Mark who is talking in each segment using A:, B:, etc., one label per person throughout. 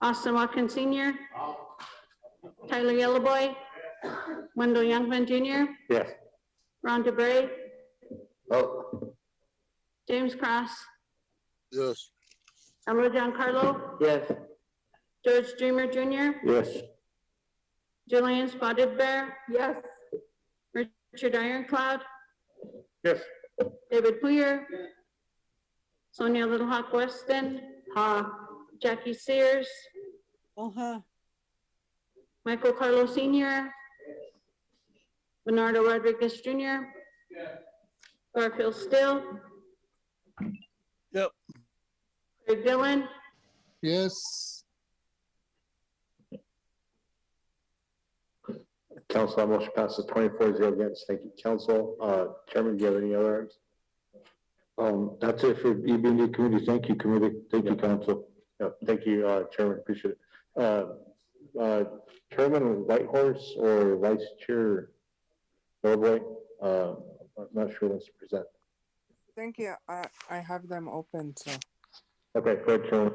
A: Austin Watkins Senior. Tyler Yellowboy. Wendell Youngman Junior.
B: Yes.
A: Ron DeBrey.
B: Oh.
A: James Cross.
C: yes,
A: Elroy Giancarlo.
B: Yes.
A: George Dreamer Junior.
B: Yes.
A: Julian Spotted Bear. Yes. Richard Ironclad.
B: Yes.
A: David Poyer. Sonia Little Hawk Weston. Ha. Jackie Sears.
D: uh-huh,
A: Michael Carlo Senior. Bernardo Rodriguez Junior. Garfield Still.
C: Yep.
A: Craig Dillon,
C: yes,
B: Council, that motion passes twenty-four zero against. Thank you, council. Uh, Chairman, do you have any other items?
E: Um, that's it for EBD committee. Thank you, committee. Thank you, council.
B: No, thank you, uh, Chairman, appreciate it. Uh, uh, Chairman Whitehorse or Vice Chair Bellboy, uh, I'm not sure who wants to present.
F: Thank you. I, I have them open. So
B: Okay, go ahead, Chairman.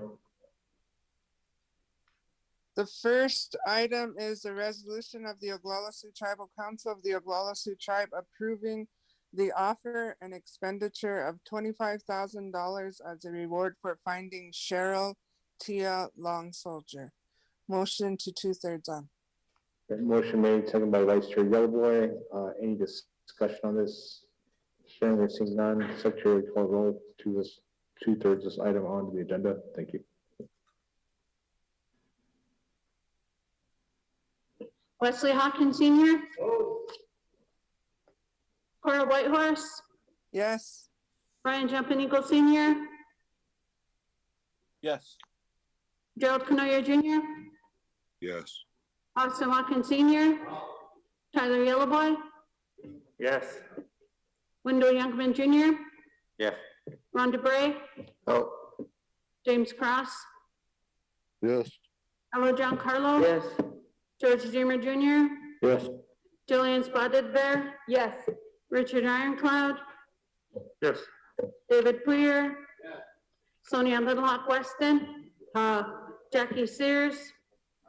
F: the first item is the resolution of the Oglala Sioux Tribal Council of the Oglala Sioux Tribe approving the offer and expenditure of twenty-five thousand dollars as a reward for finding Cheryl Tia Long Soldier. Motion to two-thirds on.
B: That Motion made, seconded by Vice Chair Yellowboy. Uh, any dis- discussion on this? Sharing or seeing none, Secretary will call roll to this, two-thirds this item onto the agenda. Thank you.
A: Wesley Hawkins Senior. Cora Whitehorse,
F: Yes,
A: Brian Jumping Eagle Senior,
G: yes,
A: Gerald Canoyer Junior,
C: yes,
A: Austin Watkins Senior, Tyler Yellowboy,
B: Yes.
A: Wendell Youngman Junior,
B: Yes.
A: Ron DeBrey,
B: Oh,
A: James Cross,
C: yes,
A: Elroy Giancarlo.
B: yes.
A: George Dreamer Junior,
B: Yes.
A: Julian Spotted Bear. Yes. Richard Ironclad,
B: Yes.
A: David Poyer. Sonia Little Hawk Weston, uh, Jackie Sears,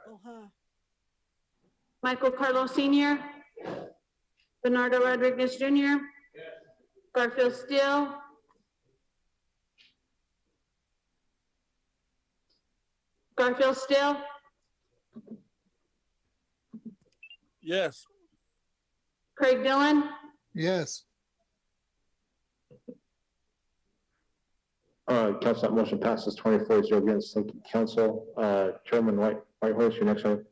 D: uh-huh.
A: Michael Carlo Senior, Bernardo Rodriguez Junior, Garfield Steele, Garfield Steele,
G: yes,
A: Craig Dillon,
C: yes,
B: Uh, council, that motion passes twenty-four zero against. Thank you, council. Uh, Chairman White, Whitehorse, your next item.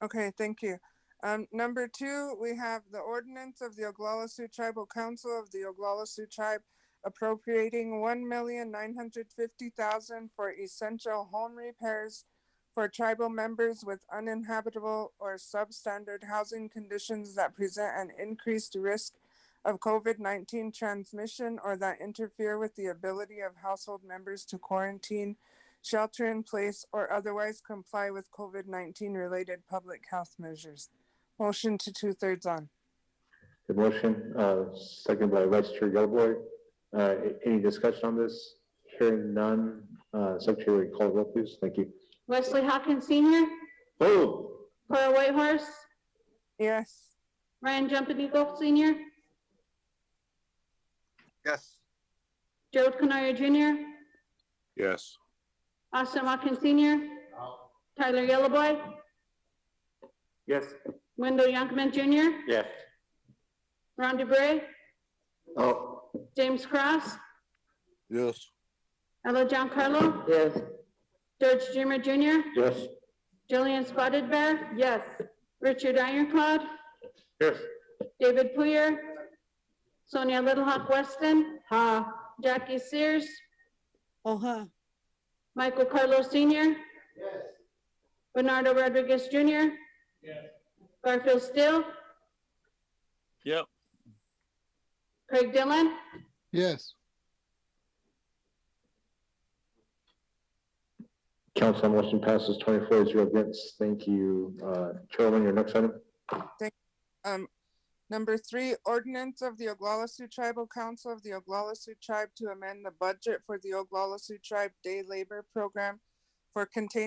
F: okay, thank you. Um, number two, we have the ordinance of the Oglala Sioux Tribal Council of the Oglala Sioux Tribe appropriating one million nine hundred fifty thousand for essential home repairs for tribal members with uninhabitable or substandard housing conditions that present an increased risk of COVID-19 transmission or that interfere with the ability of household members to quarantine, shelter in place, or otherwise comply with COVID-19 related public health measures. Motion to two-thirds on.
B: The motion, uh, second by Vice Chair Yellowboy. Uh, a- any discussion on this? Hearing none, uh, Secretary call roll, please. Thank you.
A: Wesley Hawkins Senior,
B: Oh.
A: Cora Whitehorse,
F: Yes.
A: Ryan Jumping Eagle Senior,
G: yes.
A: Gerald Canoyer Junior,
C: yes.
A: Austin Watkins Senior, Tyler Yellowboy,
B: Yes.
A: Wendell Youngman Junior,
B: Yes.
A: Ron DeBrey,
B: Oh.
A: James Cross,
C: Yes.
A: Ella Giancarlo,
B: Yes.
A: George Dreamer Junior,
B: Yes.
A: Julian Spotted Bear, yes, Richard Ironclad,
B: Yes.
A: David Poyer, Sonia Little Hawk Weston, ha, Jackie Sears,
D: uh-huh.
A: Michael Carlo Senior, Bernardo Rodriguez Junior, Garfield Still,
G: Yep,
A: Craig Dillon,
C: Yes.
B: Council motion passes twenty-four zero against. Thank you. Uh, Chairman, your next item.
F: Um, number three, ordinance of the Oglala Sioux Tribal Council of the Oglala Sioux Tribe to amend the budget for the Oglala Sioux Tribe Day Labor Program for contained